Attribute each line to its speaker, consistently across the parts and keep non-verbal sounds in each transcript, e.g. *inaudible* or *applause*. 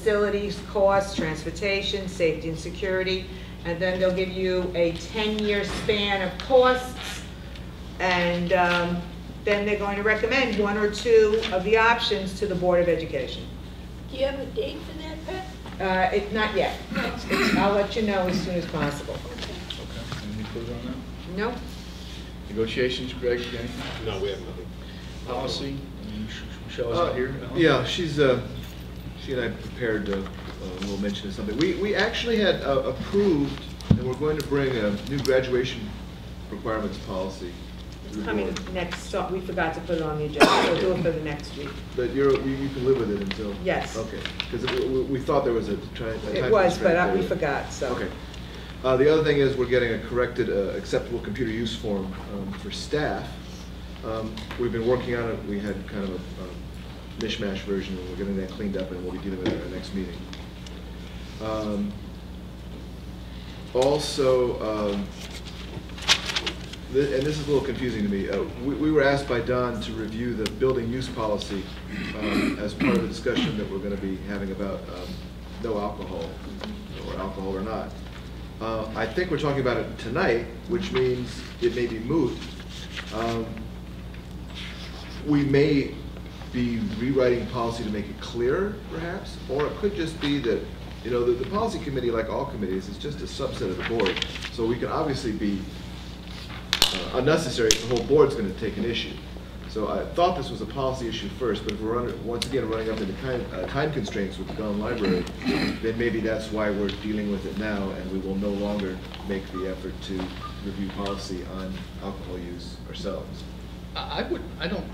Speaker 1: facilities, costs, transportation, safety and security, and then they'll give you a 10-year span of costs, and um, then they're going to recommend one or two of the options to the Board of Education.
Speaker 2: Do you have a date for that, Pat?
Speaker 1: Uh, It's not yet. It's- I'll let you know as soon as possible.
Speaker 3: Okay, anything further on that?
Speaker 1: No?
Speaker 3: Negotiations, Greg, anything?
Speaker 4: No, we have nothing.
Speaker 3: Policy, Um, Sh- Sh- Michelle's not here? uh-huh. Alan?
Speaker 5: Uh, Yeah, she's, uh, she and I prepared a a little mention of something. We, we actually had uh, approved, and we're going to bring a new graduation requirements policy. to the
Speaker 1: It's coming
Speaker 5: board.
Speaker 1: next, so- we forgot to put it on the agenda, we'll do it for the next week.
Speaker 5: But you're, you you can live with it until?
Speaker 1: Yes.
Speaker 5: Okay, because we, we thought there was a try- a time.
Speaker 1: It was, but I- we
Speaker 5: constraint there.
Speaker 1: forgot, so.
Speaker 5: Okay. Uh, The other thing is, we're getting a corrected uh, acceptable computer use form um, for staff. Um, We've been working on it, we had kind of a um, mishmash version, and we're getting that cleaned up, and we'll be dealing with it at our next meeting. Um, Also, um, thi- and this is a little confusing to me, uh, we we were asked by Don to review the building use policy um, as part of the discussion that we're going to be having about um, no alcohol, or alcohol or not. Uh, I think we're talking about it tonight, which means it may be moot. Um, We may be rewriting policy to make it clearer, perhaps, or it could just be that, you know, the, the policy committee, like all committees, is just a subset of the board. So we can obviously be uh, unnecessary if the whole board's going to take an issue. So I thought this was a policy issue first, but if we're under, once again, running up into time, uh, time constraints with the Gullen Library, then maybe that's why we're dealing with it now, and we will no longer make the effort to review policy on alcohol use ourselves.
Speaker 3: I I would, I don't,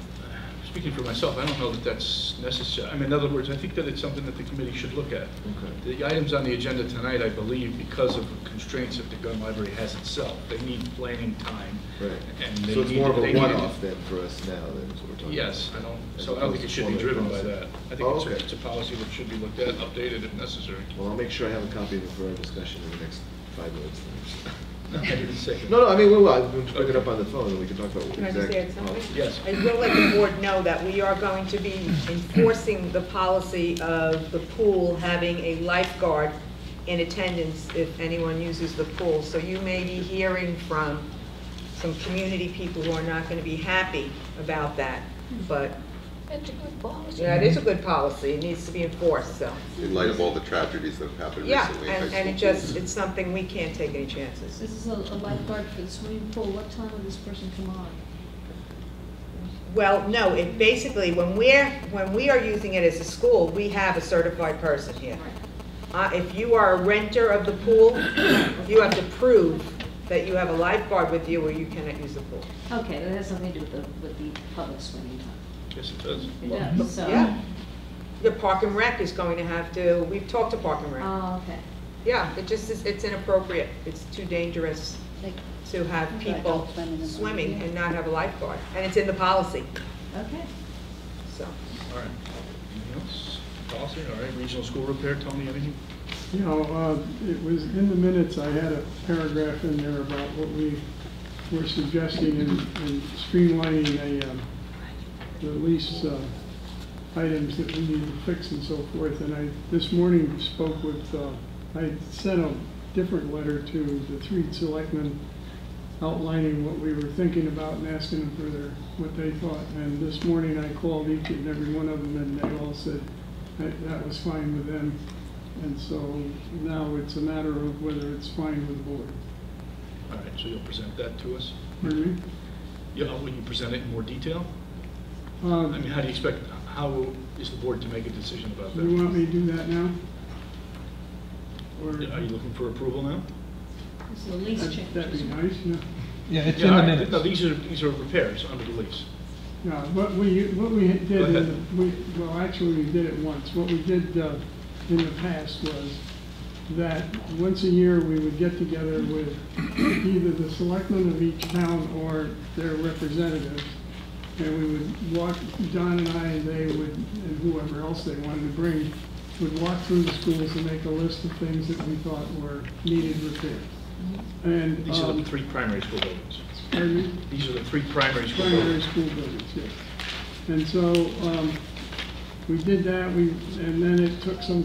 Speaker 3: speaking for myself, I don't know that that's necessary. I mean, in other words, I think that it's something that the committee should look at.
Speaker 5: Okay.
Speaker 3: The items on the agenda tonight, I believe, because of the constraints that the gun library has itself, they need planning time. and they
Speaker 5: So it's
Speaker 3: need-
Speaker 5: more of
Speaker 3: they
Speaker 5: a
Speaker 3: need-
Speaker 5: one-off then for us now, then, is what we're talking about?
Speaker 3: Yes, I don't,
Speaker 5: As
Speaker 3: so I don't think it should be
Speaker 5: opposed to
Speaker 3: driven by
Speaker 5: formally
Speaker 3: that. I think
Speaker 5: Oh,
Speaker 3: it's a-
Speaker 5: okay.
Speaker 3: it's a policy that should be looked at, updated if
Speaker 5: *laughs*
Speaker 3: necessary.
Speaker 5: Well, I'll make sure I have a copy of it for our discussion in the next five minutes.
Speaker 3: I didn't say that.
Speaker 5: No, no, I mean, we will, I'll pick it up on the phone, and we can talk about
Speaker 1: Can I just
Speaker 5: exact
Speaker 1: add something?
Speaker 5: policy.
Speaker 3: Yes.
Speaker 1: I will let the board know that we are going to be enforcing the policy of the pool having a lifeguard in attendance if anyone uses the pool. So you may be hearing from some community people who are not going to be happy about that. But,
Speaker 2: That's a good policy.
Speaker 1: yeah, it is a good policy, it needs to be enforced, so.
Speaker 6: in light of all the tragedies that have happened
Speaker 1: Yeah,
Speaker 6: recently. in high
Speaker 1: and, and it
Speaker 6: school
Speaker 1: just, it's something we can't take any chances.
Speaker 7: This is a a lifeguard for the swimming pool. What time will this person come on?
Speaker 1: Well, no, it basically, when we're, when we are using it as a school, we have a certified person here. Uh, If you are a renter of the pool, you have to prove that you have a lifeguard with you or you cannot use the pool.
Speaker 7: Okay, that has something to do with the, with the public swimming time.
Speaker 3: Yes, it does.
Speaker 7: It does, so.
Speaker 1: Yeah. The Park and Rec is going to have to, we've talked to Park and Rec.
Speaker 7: Oh, okay.
Speaker 1: Yeah, it just is, it's inappropriate. It's too dangerous
Speaker 7: Like,
Speaker 1: to have
Speaker 7: Right,
Speaker 1: people
Speaker 7: don't swim in the-
Speaker 1: swimming and not have a lifeguard. And it's in the policy,
Speaker 7: Okay.
Speaker 1: so.
Speaker 3: All right. Anything else? Policy, all right. Regional school repair, Tony, anything?
Speaker 8: You know, uh, it was in the minutes, I had a paragraph in there about what we were suggesting in in streamlining a, um, the lease uh, items that we need to fix and so forth. And I, this morning spoke with, uh, I sent a different letter to the three selectmen outlining what we were thinking about and asking them for their, what they thought. And this morning I called each and every one of them and they all said that that was fine with them. And so now it's a matter of whether it's fine with the board.
Speaker 3: All right, so you'll present that to us?
Speaker 8: Pardon me?
Speaker 3: Yeah, will you present it in more detail?
Speaker 8: Uh,
Speaker 3: I mean, how do you expect, how is the board to make a decision about that?
Speaker 8: You want me to do that now? Or
Speaker 3: Are you looking for approval now?
Speaker 7: This is a lease
Speaker 8: That'd
Speaker 7: change.
Speaker 8: that'd be
Speaker 7: isn't it?
Speaker 8: nice, yeah.
Speaker 9: Yeah, it's
Speaker 3: Yeah,
Speaker 9: in
Speaker 3: all
Speaker 9: the
Speaker 3: right.
Speaker 9: minutes.
Speaker 3: No, these are, these are repairs under the lease.
Speaker 8: Yeah, what we, what we did,
Speaker 3: Go
Speaker 8: in
Speaker 3: ahead.
Speaker 8: the- we, well, actually, we did it once. What we did uh, in the past was that once a year, we would get together with either the selectmen of each town or their representatives, and we would walk, Don and I, and they would, and whoever else they wanted to bring, would walk through the schools and make a list of things that we thought were needed repair. And,
Speaker 3: These are the
Speaker 8: um,
Speaker 3: three primary school buildings.
Speaker 8: pardon me?
Speaker 3: These are the three primary school
Speaker 8: primary
Speaker 3: buildings.
Speaker 8: school buildings, yes. And so, um, we did that, we, and then it took some